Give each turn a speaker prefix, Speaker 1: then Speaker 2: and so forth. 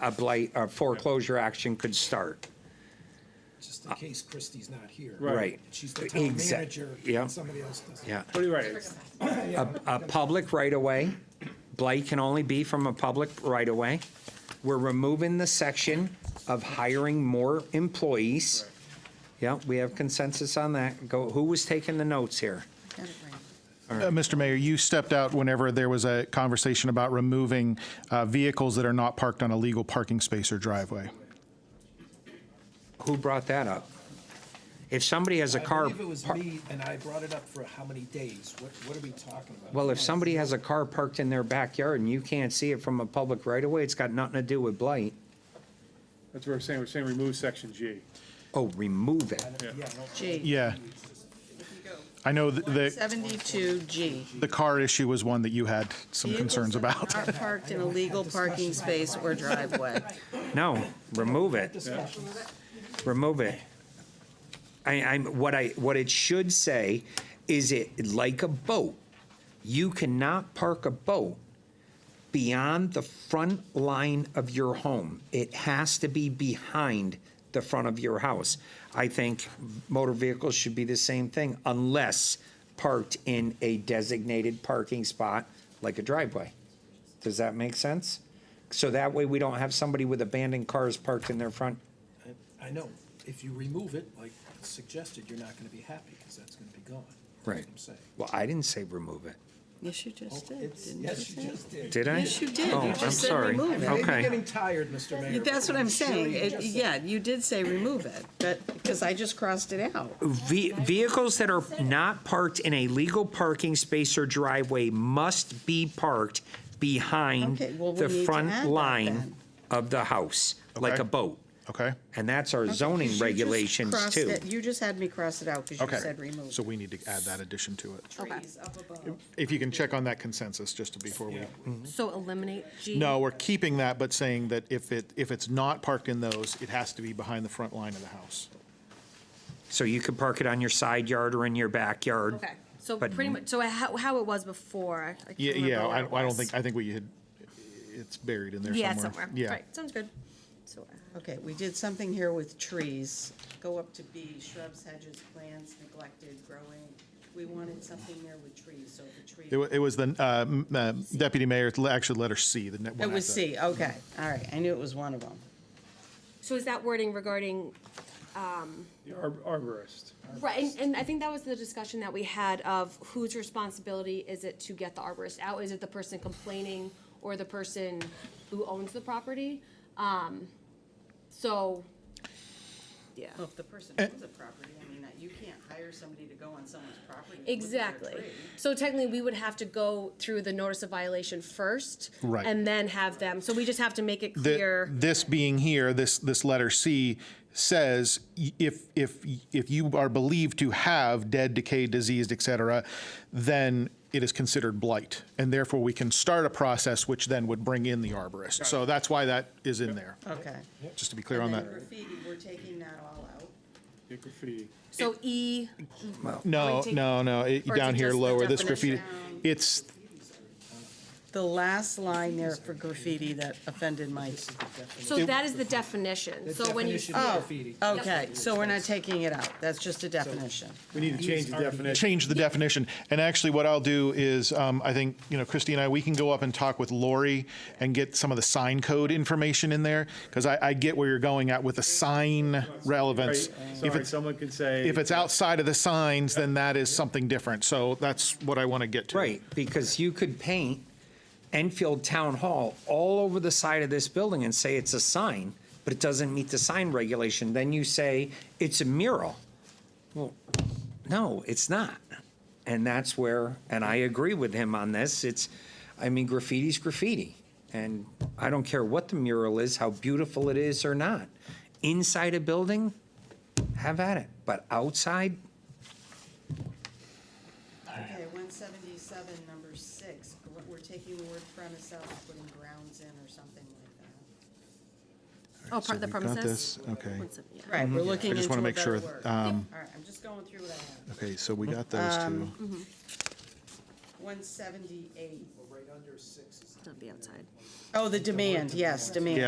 Speaker 1: a blight, a foreclosure action could start.
Speaker 2: just in case Christie's not here.
Speaker 1: Uh, Right. Right.
Speaker 2: She's the town
Speaker 1: Exact-
Speaker 2: manager,
Speaker 1: yeah.
Speaker 2: and somebody else does.
Speaker 1: Yeah.
Speaker 3: What do you write?
Speaker 1: A public right-of-way, blight can only be from a public right-of-way. We're removing the section of hiring more employees. Yeah, we have consensus on that. Go, who was taking the notes here?
Speaker 4: Uh, Mr. Mayor, you stepped out whenever there was a conversation about removing uh, vehicles that are not parked on a legal parking space or driveway.
Speaker 1: Who brought that up? If somebody has a car.
Speaker 2: I believe it was
Speaker 1: par-
Speaker 2: me, and I brought it up for how many days? What, what are we talking about?
Speaker 1: Well, if somebody has a car parked in their backyard and you can't see it from a public right-of-way, it's got nothing to do with blight.
Speaker 3: That's what we're saying, we're saying remove section G.
Speaker 1: Oh, remove it.
Speaker 2: Yeah, no,
Speaker 5: G.
Speaker 4: Yeah. I know th- the,
Speaker 5: 72G.
Speaker 4: the car issue was one that you had some concerns about.
Speaker 5: Are parked in a legal parking space or driveway.
Speaker 1: No, remove it,
Speaker 2: discussion.
Speaker 1: remove it. I, I'm, what I, what it should say is it, like a boat, you cannot park a boat beyond the front line of your home. It has to be behind the front of your house. I think motor vehicles should be the same thing unless parked in a designated parking spot like a driveway. Does that make sense? So that way we don't have somebody with abandoned cars parked in their front.
Speaker 2: I know, if you remove it, like suggested, you're not gonna be happy, because that's gonna be gone. That's what I'm saying.
Speaker 1: Well, I didn't say remove it,
Speaker 5: Yes, you just
Speaker 2: Oh,
Speaker 5: did,
Speaker 2: it's-
Speaker 5: didn't you
Speaker 2: Yes, you
Speaker 5: say?
Speaker 2: just did.
Speaker 1: did I?
Speaker 5: Yes, you did.
Speaker 1: Oh,
Speaker 5: You
Speaker 1: I'm
Speaker 5: just said
Speaker 1: sorry.
Speaker 5: remove it.
Speaker 2: Maybe you're
Speaker 1: Okay.
Speaker 2: getting tired, Mr. Mayor.
Speaker 5: That's what I'm saying.
Speaker 2: Sure, you
Speaker 5: It-
Speaker 2: just said-
Speaker 5: Yeah, you did say remove it, but, because I just crossed it out.
Speaker 1: Ve- Vehicles that are not parked in a legal parking space or driveway must be parked behind
Speaker 5: Okay, well, we
Speaker 1: the
Speaker 5: need to add
Speaker 1: front
Speaker 5: that
Speaker 1: line
Speaker 5: then.
Speaker 1: of the house, like
Speaker 4: Okay.
Speaker 1: a boat.
Speaker 4: Okay?
Speaker 1: And that's our
Speaker 5: You
Speaker 1: zoning
Speaker 5: just
Speaker 1: regulations
Speaker 5: crossed
Speaker 1: too.
Speaker 5: it- You just had me cross it out because you
Speaker 4: Okay.
Speaker 5: said remove.
Speaker 4: So we need to add that addition to it.
Speaker 6: trees up above.
Speaker 4: If you can check on that consensus, just to before we. Mm-hmm.
Speaker 6: So eliminate G?
Speaker 4: No, we're keeping that, but saying that if it, if it's not parked in those, it has to be behind the front line of the house.
Speaker 1: So you could park it on your side yard or in your backyard.
Speaker 6: Okay, so
Speaker 1: But-
Speaker 6: pretty much, so how, how it was before. I- I can't
Speaker 4: Yeah,
Speaker 6: remember
Speaker 4: yeah,
Speaker 6: where
Speaker 4: I
Speaker 6: it
Speaker 4: I don't
Speaker 6: was.
Speaker 4: think, I think we had, it's buried in there somewhere.
Speaker 6: Yeah, somewhere,
Speaker 4: Yeah.
Speaker 6: right, sounds good. So, uh,
Speaker 5: Okay, we did something here with trees. Go up to B, shrubs, hedges, plants neglected, growing. We wanted something there with trees, so the tree.
Speaker 4: It wa- it was the uh, m- uh, deputy mayor, le- actually letter C, the ne- one
Speaker 5: It was
Speaker 4: after.
Speaker 5: Oh, C, okay, all right, I knew it was one of them.
Speaker 6: so is that wording regarding,
Speaker 3: The arb- Arborist.
Speaker 6: right, and, and I think that was the discussion that we had of whose responsibility is it to get the arborist out? Is it the person complaining or the person who owns the property? Um, so, yeah.
Speaker 5: Well, if the person owns a property, I mean, you can't hire somebody to go on someone's property. and look at their
Speaker 6: Exactly.
Speaker 5: tree.
Speaker 6: So technically, we would have to go through the notice of violation first.
Speaker 4: Right.
Speaker 6: And then have them, so we just have to make it
Speaker 4: The-
Speaker 6: clear.
Speaker 4: This being here, this, this letter C says, y- if, if, y- if you are believed to have dead, decayed, diseased, et cetera, then it is considered blight. And therefore, we can start a process which then would bring in the arborist. So that's why that is in there,
Speaker 5: Okay.
Speaker 4: just to be clear on that.
Speaker 5: And then graffiti, we're taking that all out.
Speaker 3: the graffiti.
Speaker 6: So E,
Speaker 4: No,
Speaker 6: Or take-
Speaker 4: no, no, it-
Speaker 6: or
Speaker 4: down
Speaker 6: to
Speaker 4: here
Speaker 6: just the
Speaker 4: lower, this graffiti,
Speaker 6: definition.
Speaker 4: it's,
Speaker 5: The last line there for graffiti that offended my,
Speaker 6: so that is the definition.
Speaker 2: The
Speaker 6: So when you,
Speaker 2: definition of graffiti.
Speaker 5: oh, okay, so we're not taking it out, that's just a definition.
Speaker 3: We need to change the definition.
Speaker 4: change the definition. And actually, what I'll do is, um, I think, you know, Christy and I, we can go up and talk with Lori and get some of the sign code information in there, because I, I get where you're going at with the sign relevance.
Speaker 3: Right, uh,
Speaker 4: If
Speaker 3: Sorry,
Speaker 4: it's,
Speaker 3: someone can say.
Speaker 4: if it's outside of the signs, then that is something different. So that's what I want to get to.
Speaker 1: Right, because you could paint Enfield Town Hall all over the side of this building and say it's a sign, but it doesn't meet the sign regulation. Then you say it's a mural. Well, no, it's not. And that's where, and I agree with him on this, it's, I mean, graffiti's graffiti. And I don't care what the mural is, how beautiful it is or not. Inside a building, have at it, but outside,
Speaker 5: Okay, one seventy-seven, number six, gr- we're taking the word premise out, and putting grounds in or something like
Speaker 6: oh, part of the
Speaker 4: we've got
Speaker 6: premises?
Speaker 4: this, okay.
Speaker 6: Once a- yeah.
Speaker 5: that. Right, we're
Speaker 4: Mm-hmm. I
Speaker 5: looking
Speaker 4: just
Speaker 5: into
Speaker 4: wanna
Speaker 5: a
Speaker 4: make sure, um,
Speaker 5: better word. All right, I'm just going through what I have.
Speaker 4: Okay, so we got those two.
Speaker 5: One seventy-eight.
Speaker 2: Right under six is
Speaker 6: That'd be outside.
Speaker 5: Oh, the demand, yes, demand.
Speaker 4: Yeah,